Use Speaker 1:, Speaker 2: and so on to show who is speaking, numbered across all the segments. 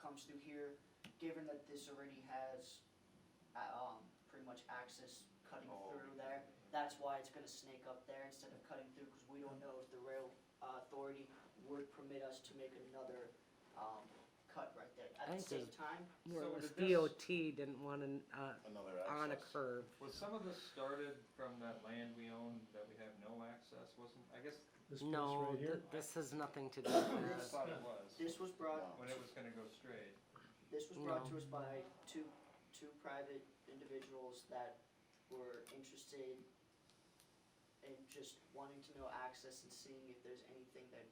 Speaker 1: comes through here, given that this already has, uh, um, pretty much access cutting
Speaker 2: Oh.
Speaker 1: through there, that's why it's gonna snake up there instead of cutting through, because we don't know if the rail uh, authority would permit us to make another, um, cut right there.
Speaker 3: I
Speaker 1: At the
Speaker 3: think
Speaker 1: same
Speaker 3: there's-
Speaker 1: time,
Speaker 3: Where
Speaker 2: So
Speaker 3: it was
Speaker 2: did this-
Speaker 3: DOT didn't want an, uh,
Speaker 2: Another
Speaker 3: on a
Speaker 2: access.
Speaker 3: curve.
Speaker 4: Was some of this started from that land we own that we have no access, wasn't, I guess,
Speaker 5: This place
Speaker 3: No,
Speaker 5: right
Speaker 3: th-
Speaker 5: here?
Speaker 3: this has nothing to do with
Speaker 4: I
Speaker 3: this.
Speaker 4: thought it was,
Speaker 1: this was brought,
Speaker 4: when it was gonna go straight.
Speaker 1: this was brought to
Speaker 3: No.
Speaker 1: us by two, two private individuals that were interested in just wanting to know access and seeing if there's anything that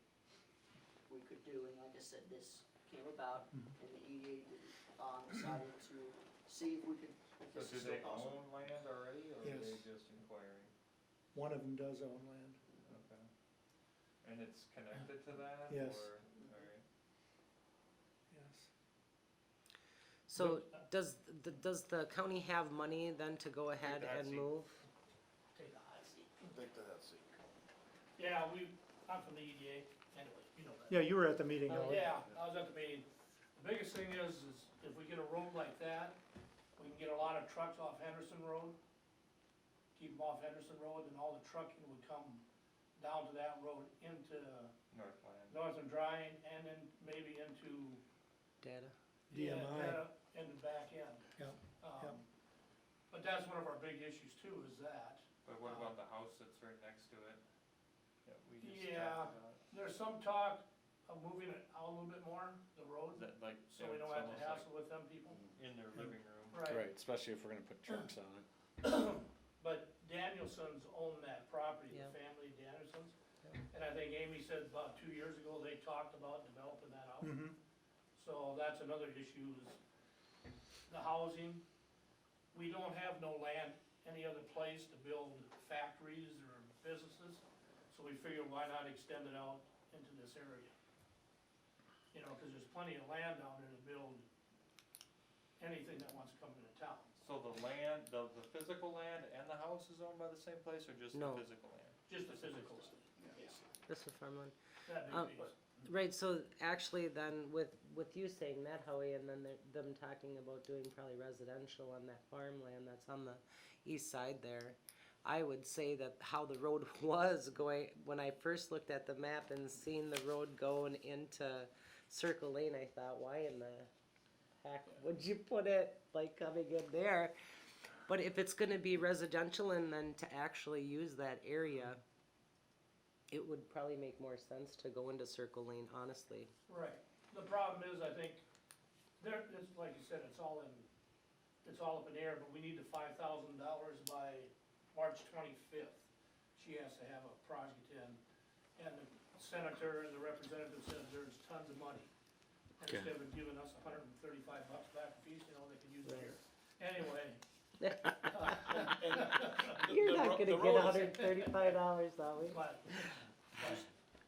Speaker 1: we could do, and like I said, this came about,
Speaker 5: Mm-hmm.
Speaker 1: and the E EDA, um, decided to see if we could, if
Speaker 4: So
Speaker 1: this
Speaker 4: do
Speaker 1: is
Speaker 4: they
Speaker 1: still possible.
Speaker 4: own land already, or are they
Speaker 5: Yes.
Speaker 4: just inquiring?
Speaker 5: One of them does own land.
Speaker 4: Okay. And it's connected to that,
Speaker 5: Yes.
Speaker 4: or, alright,
Speaker 5: Yes.
Speaker 3: So does, the- does the county have money then to go ahead
Speaker 4: that's
Speaker 3: and
Speaker 4: it.
Speaker 3: move?
Speaker 6: Take the hot seat.
Speaker 2: Take the hot seat.
Speaker 6: Yeah, we, I'm from the EDA, anyway, you know that.
Speaker 5: Yeah, you were at the meeting,
Speaker 6: Uh,
Speaker 5: Ellie.
Speaker 6: Yeah, I was at the meeting. The biggest thing is, is if we get a road like that, we can get a lot of trucks off Henderson Road. Keep them off Henderson Road, and all the trucking would come down to that road into
Speaker 4: Northland.
Speaker 6: Northern Drying, and then maybe into.
Speaker 3: Data?
Speaker 6: yeah,
Speaker 5: DMI.
Speaker 6: that- In the back end.
Speaker 5: Yeah,
Speaker 6: Um,
Speaker 5: yeah.
Speaker 6: But that's one of our big issues too, is that.
Speaker 4: But what about the house that's right next to it? That we just
Speaker 6: Yeah.
Speaker 4: talked about?
Speaker 6: There's some talk of moving it out a little bit more, the
Speaker 4: Is
Speaker 6: road,
Speaker 4: That like, it's
Speaker 6: so we don't have
Speaker 4: almost
Speaker 6: to
Speaker 4: like
Speaker 6: hassle with them people.
Speaker 4: in their living room.
Speaker 6: Right,
Speaker 7: especially if we're gonna put trucks on it.
Speaker 6: but Danielson's own that property, the
Speaker 3: Yeah.
Speaker 6: family Danielson's.
Speaker 3: Yeah.
Speaker 6: And I think Amy said about two years ago, they talked about developing that out.
Speaker 5: Mm-hmm.
Speaker 6: So that's another issue is the housing. We don't have no land any other place to build factories or businesses, so we figure why not extend it out into this area? You know, cause there's plenty of land down there to build anything that wants to come into town.
Speaker 4: So the land, the, the physical land and the house is owned by the same place, or just the
Speaker 3: No.
Speaker 4: physical land?
Speaker 6: Just the physical stuff,
Speaker 3: This is farmland.
Speaker 6: that
Speaker 3: Um,
Speaker 6: big piece.
Speaker 3: Right, so actually then with, with you saying that, Howie, and then the- them talking about doing probably residential on that farmland that's on the east side there, I would say that how the road was going, when I first looked at the map and seen the road going into Circle Lane, I thought, why in the heck would you put it like coming in there? But if it's gonna be residential and then to actually use that area, it would probably make more sense to go into Circle Lane, honestly.
Speaker 6: Right, the problem is, I think, there, it's like you said, it's all in, it's all up in the air, but we need the five thousand dollars by March twenty-fifth. She has to have a project in, and the senator and the representative said there's tons of money. And Instead of giving us hundred and thirty-five bucks back a piece, you know, they could use it here. Anyway,
Speaker 3: You're not
Speaker 2: the
Speaker 3: gonna get
Speaker 2: road is-
Speaker 3: hundred and thirty-five dollars, that way.
Speaker 6: but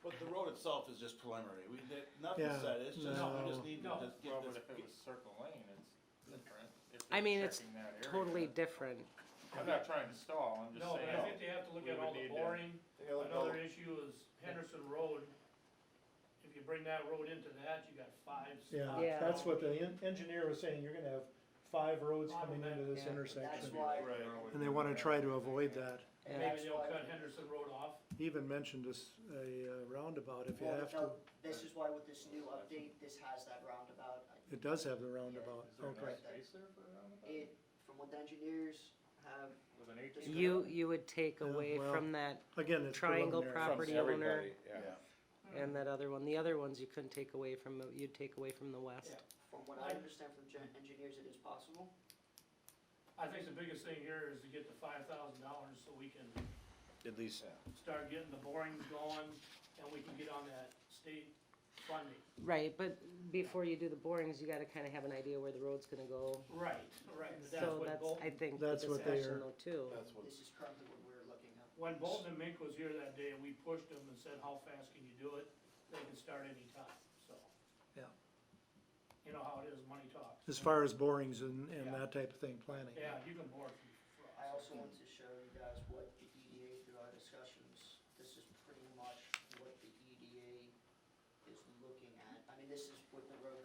Speaker 2: But the road itself is just preliminary, we, that,
Speaker 5: Yeah.
Speaker 2: nothing's said, it's just, we
Speaker 5: No.
Speaker 2: just need to
Speaker 6: No.
Speaker 2: just
Speaker 4: Well,
Speaker 2: get
Speaker 4: but
Speaker 2: this.
Speaker 4: if it was Circle Lane, it's different. if
Speaker 3: I
Speaker 4: they're
Speaker 3: mean, it's
Speaker 4: checking that area.
Speaker 3: Totally different.
Speaker 4: I'm not trying to stall, I'm just
Speaker 6: No, but I
Speaker 4: saying,
Speaker 6: think they have to look
Speaker 4: We
Speaker 6: at
Speaker 4: would
Speaker 6: all the
Speaker 4: need to-
Speaker 6: boring,
Speaker 2: Take a look at all
Speaker 6: another
Speaker 2: the-
Speaker 6: issue is Henderson Road. If you bring that road into that, you got five spots.
Speaker 5: Yeah,
Speaker 3: Yeah.
Speaker 5: that's what the en- engineer was saying, you're gonna have five roads
Speaker 6: Five
Speaker 5: coming
Speaker 6: of them,
Speaker 5: into this
Speaker 3: yeah.
Speaker 1: That's
Speaker 5: intersection.
Speaker 1: why.
Speaker 4: Right.
Speaker 5: And they wanna try to avoid that.
Speaker 3: Yeah.
Speaker 6: Maybe they'll cut Henderson Road off.
Speaker 5: He even mentioned this, a uh, roundabout, if you
Speaker 1: Well,
Speaker 5: have to,
Speaker 1: no, This is why with this new update, this has that roundabout.
Speaker 5: it does have the roundabout,
Speaker 4: Is there enough
Speaker 5: okay.
Speaker 4: space there for a roundabout?
Speaker 1: It, from what the engineers have,
Speaker 4: With an eighteen?
Speaker 3: You, you would take
Speaker 5: Yeah,
Speaker 3: away
Speaker 5: well,
Speaker 3: from that
Speaker 5: Again, it's
Speaker 3: Triangle
Speaker 5: preliminary.
Speaker 3: prop- Property owner.
Speaker 2: Yeah,
Speaker 3: and that other one. The other ones you couldn't take away from, you'd take away from the
Speaker 6: Yeah.
Speaker 3: west.
Speaker 1: from what I understand from gen- engineers, it is possible.
Speaker 6: I think the biggest thing here is to get the five thousand dollars so we can
Speaker 7: At least,
Speaker 6: start getting the borings going and we can get on that state funding.
Speaker 3: Right, but before you do the borings, you gotta kinda have an idea where the road's gonna go.
Speaker 6: Right, right. But that's
Speaker 3: So
Speaker 6: what
Speaker 3: that's, I
Speaker 6: Bolton,
Speaker 3: think, the
Speaker 5: That's what they
Speaker 3: discussion
Speaker 5: are-
Speaker 3: though too.
Speaker 2: that's what,
Speaker 1: This is currently what we're looking at.
Speaker 6: when Bolton and Mink was here that day, we pushed them and said, how fast can you do it? They can start any time. so.
Speaker 5: Yeah.
Speaker 6: You know how it is, money talks.
Speaker 5: As far as borings and,
Speaker 6: Yeah.
Speaker 5: and that type of thing, planning.
Speaker 6: Yeah, you can bore from
Speaker 1: I
Speaker 6: frost.
Speaker 1: also want to show you guys what the EDA through our E discussions, this is pretty much what the EDA is looking at. I mean, this is